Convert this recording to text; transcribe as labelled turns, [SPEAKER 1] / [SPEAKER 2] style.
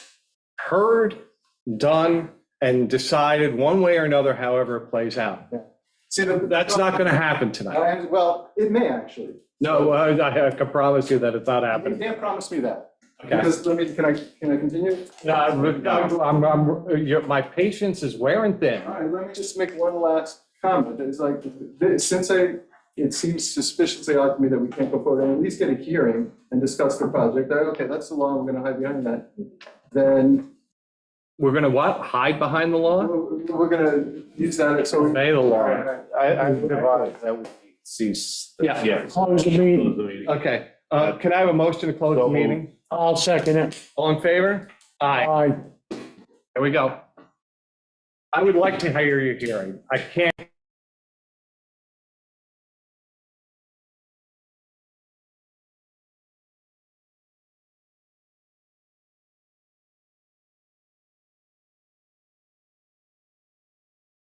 [SPEAKER 1] heard, done, and decided one way or another, however it plays out.
[SPEAKER 2] See, the-
[SPEAKER 1] That's not going to happen tonight.
[SPEAKER 2] I- Well, it may actually.
[SPEAKER 1] No, I I can promise you that it's not
[SPEAKER 2] You
[SPEAKER 1] happening.
[SPEAKER 2] can't promise me that.
[SPEAKER 1] Okay.
[SPEAKER 2] Because let me, can I, can I continue?
[SPEAKER 1] No, I'm- uh, I'm, I'm, you're- my patience is wearing thin.
[SPEAKER 2] All right, let me just make one last comment. It's like, th- since I, it seems suspiciously odd to me that we can't go forward and at least get a hearing and discuss the project. I- Okay, that's the law, I'm gonna hide behind that. Then
[SPEAKER 1] We're going to what? Hide behind the law?
[SPEAKER 2] we're we're gonna use that, so. we-
[SPEAKER 1] Obey the law.
[SPEAKER 3] I, I would advise that we cease. the-
[SPEAKER 1] Yeah.
[SPEAKER 4] Close the meeting.
[SPEAKER 3] Close the meeting.
[SPEAKER 1] Okay, uh, can I have a motion to close the
[SPEAKER 3] So moved.
[SPEAKER 1] meeting?
[SPEAKER 4] I'll second it.
[SPEAKER 1] All in favor? Aye,
[SPEAKER 4] Aye.
[SPEAKER 1] here we go. I would like to hear your hearing. I can't